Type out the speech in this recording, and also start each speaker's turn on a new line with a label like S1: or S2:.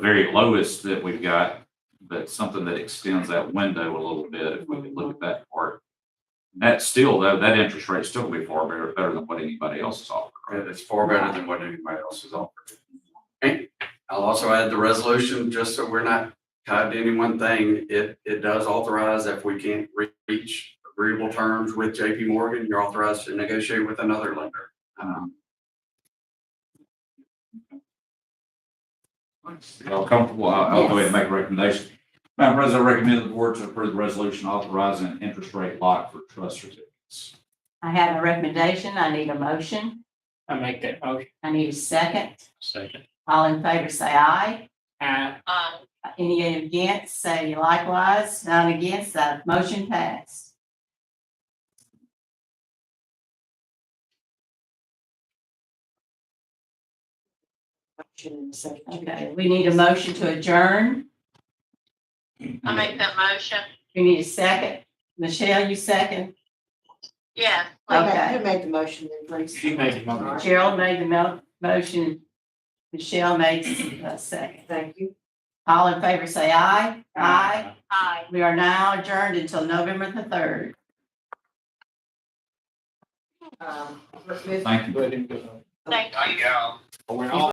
S1: very lowest that we've got, but something that extends that window a little bit, if we could look at that part. That's still, though, that interest rate's still gonna be far better, better than what anybody else is offering.
S2: Yeah, that's far better than what anybody else is offering. And I'll also add the resolution, just so we're not tied to any one thing, it, it does authorize if we can't re- reach agreeable terms with JP Morgan, you're authorized to negotiate with another lender. Um,
S1: Y'all comfortable? I'll, I'll go ahead and make a recommendation. Madam President, I recommend the board to approve the resolution authorizing an interest rate lock for trust certificates.
S3: I have a recommendation. I need a motion.
S4: I make that motion.
S3: I need a second.
S4: Second.
S3: All in favor, say aye.
S4: Aye.
S3: Any against, say likewise. None against, that motion passed. Okay, we need a motion to adjourn.
S5: I make that motion.
S3: We need a second. Michelle, you second.
S5: Yeah.
S3: Okay.
S6: Who made the motion then, please?
S4: She made the motion.
S3: Gerald made the mo- motion. Michelle made a second.
S6: Thank you.
S3: All in favor, say aye. Aye.
S5: Aye.
S3: We are now adjourned until November the third.
S6: Um, let's move
S1: Thank you.
S6: Um,
S4: Good, good.
S5: Thank you.
S4: We're all.